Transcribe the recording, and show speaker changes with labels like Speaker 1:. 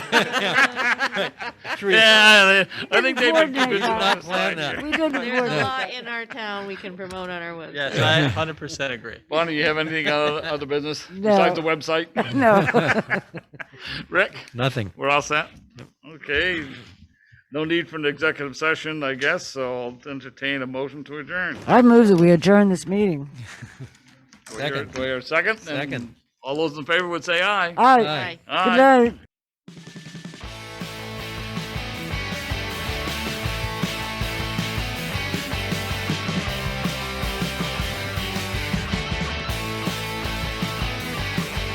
Speaker 1: Teresa,
Speaker 2: Yeah, I I think they did
Speaker 3: coordinate
Speaker 2: good
Speaker 3: that.
Speaker 2: jobs last
Speaker 1: Plan that.
Speaker 2: year.
Speaker 3: We didn't
Speaker 4: There's
Speaker 3: work.
Speaker 4: a lot in our town we can promote on our website.
Speaker 5: Yes, I 100% agree.
Speaker 2: Bonnie, you have anything on other business
Speaker 3: No.
Speaker 2: besides the website?
Speaker 3: No.
Speaker 2: Rick,
Speaker 1: nothing.
Speaker 2: we're all set? Okay. No need for an executive session, I guess, so I'll entertain a motion to adjourn.
Speaker 3: I move that we adjourn this meeting.
Speaker 2: Do we hear-
Speaker 1: Second.
Speaker 2: Do we hear a second? And
Speaker 1: Second.
Speaker 2: All those in favor would say aye.
Speaker 3: All right.
Speaker 1: Aye.
Speaker 4: Aye.
Speaker 3: Good
Speaker 2: Aye.
Speaker 3: night.